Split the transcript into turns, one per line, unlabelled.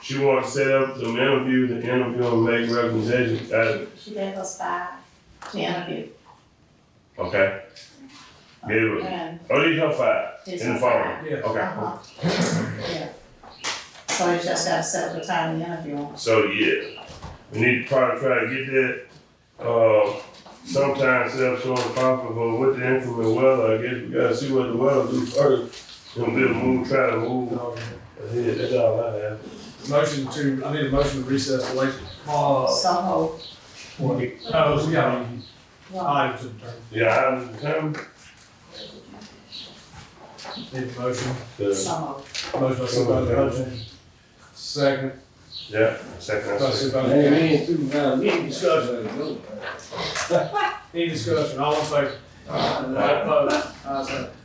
She wanted to set up some interviews and interview and make recommendations. Uh,
She gave us five, she interviewed,
okay. Gave her,
and
oh, these her five.
it's
In the
a
file.
five.
Yeah.
Okay.
Uh-huh. Yeah. So you just gotta set up the time to interview them.
So yeah, we need to probably try to get that. Uh, sometimes self showing profit, but with the inclement weather, I guess we gotta see what the weather do first. Gonna be a move, try to move ahead. That's all I have.
Motion to, I need a motion to recess the late, uh,
So, hold.
oh, we got
Well,
items in turn.
Yeah, I'm determined.
Need a motion,
to-
so, hold.
motion by Supervisor Hutchins, second
Yeah, second. I
by
said.
Supervisor. Gaines.
Hey, man, supervisor, we ain't discussing it, no.
Any discussion, all in favor? Aye, Opposed? Ayes have it.